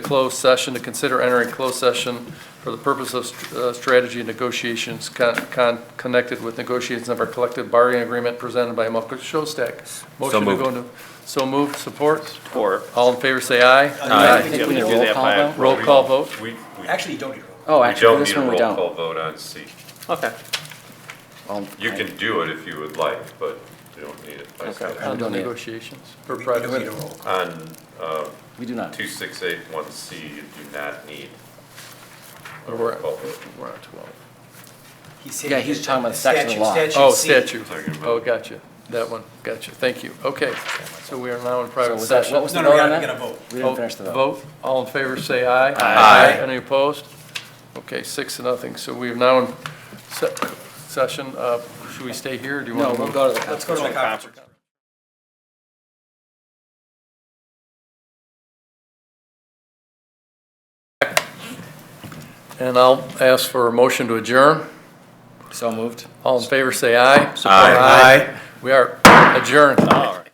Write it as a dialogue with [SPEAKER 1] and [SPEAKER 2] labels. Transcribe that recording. [SPEAKER 1] closed session to consider entering closed session for the purpose of str- uh, strategy and negotiations con- con- connected with negotiations of our collective bargaining agreement presented by Michael Shostak. Motion to
[SPEAKER 2] moved.
[SPEAKER 1] go into, so moved, support.
[SPEAKER 3] Or,
[SPEAKER 1] All in favor, say aye.
[SPEAKER 3] I
[SPEAKER 4] Uh,
[SPEAKER 3] think
[SPEAKER 5] Uh, think
[SPEAKER 3] we
[SPEAKER 5] we
[SPEAKER 3] need to
[SPEAKER 5] need
[SPEAKER 3] do that
[SPEAKER 5] a roll call
[SPEAKER 3] by,
[SPEAKER 1] Roll call vote.
[SPEAKER 4] We, we we
[SPEAKER 5] Actually, you don't need a roll.
[SPEAKER 2] Oh, actually,
[SPEAKER 4] don't
[SPEAKER 2] for this
[SPEAKER 4] need a
[SPEAKER 2] one, we
[SPEAKER 4] roll
[SPEAKER 2] don't. Oh,
[SPEAKER 4] call vote on C.
[SPEAKER 3] okay,
[SPEAKER 2] Well,
[SPEAKER 4] You
[SPEAKER 2] I-
[SPEAKER 4] can do it if you would like, but you don't need it. by
[SPEAKER 3] Okay.
[SPEAKER 4] statute.
[SPEAKER 1] On the
[SPEAKER 2] don't need it.
[SPEAKER 1] negotiations for
[SPEAKER 5] We- We don't need
[SPEAKER 1] private.
[SPEAKER 5] a roll call.
[SPEAKER 4] On
[SPEAKER 2] We do not.
[SPEAKER 4] two six eight one C, you do not need
[SPEAKER 1] Or we're
[SPEAKER 4] a roll call vote.
[SPEAKER 1] we're on 12.
[SPEAKER 5] He said
[SPEAKER 2] Yeah,
[SPEAKER 5] he
[SPEAKER 2] he's
[SPEAKER 5] did-
[SPEAKER 2] talking about the section of law.
[SPEAKER 5] statute-
[SPEAKER 1] Oh,
[SPEAKER 5] C.
[SPEAKER 1] statute.
[SPEAKER 4] Talking about-
[SPEAKER 1] Oh, gotcha. That one, gotcha. Thank you. Okay, so we are now in
[SPEAKER 2] So
[SPEAKER 1] private
[SPEAKER 2] was that,
[SPEAKER 1] session.
[SPEAKER 2] what was the
[SPEAKER 5] No, no,
[SPEAKER 2] vote
[SPEAKER 5] we
[SPEAKER 2] on
[SPEAKER 5] gotta, we gotta
[SPEAKER 2] that?
[SPEAKER 5] vote.
[SPEAKER 2] We didn't finish the vote.
[SPEAKER 1] Vote, all in favor, say aye.
[SPEAKER 5] Aye.
[SPEAKER 1] Any opposed? Okay, six to nothing. So we are now in se- session. Uh, Should we stay here, or do you
[SPEAKER 2] No,
[SPEAKER 1] want to
[SPEAKER 2] we'll
[SPEAKER 1] move?
[SPEAKER 2] go to the
[SPEAKER 5] Let's go to the conference.
[SPEAKER 1] And I'll ask for a motion to adjourn.
[SPEAKER 2] So moved.
[SPEAKER 1] All in favor, say aye.
[SPEAKER 2] Aye.
[SPEAKER 1] We are adjourned.
[SPEAKER 3] all right.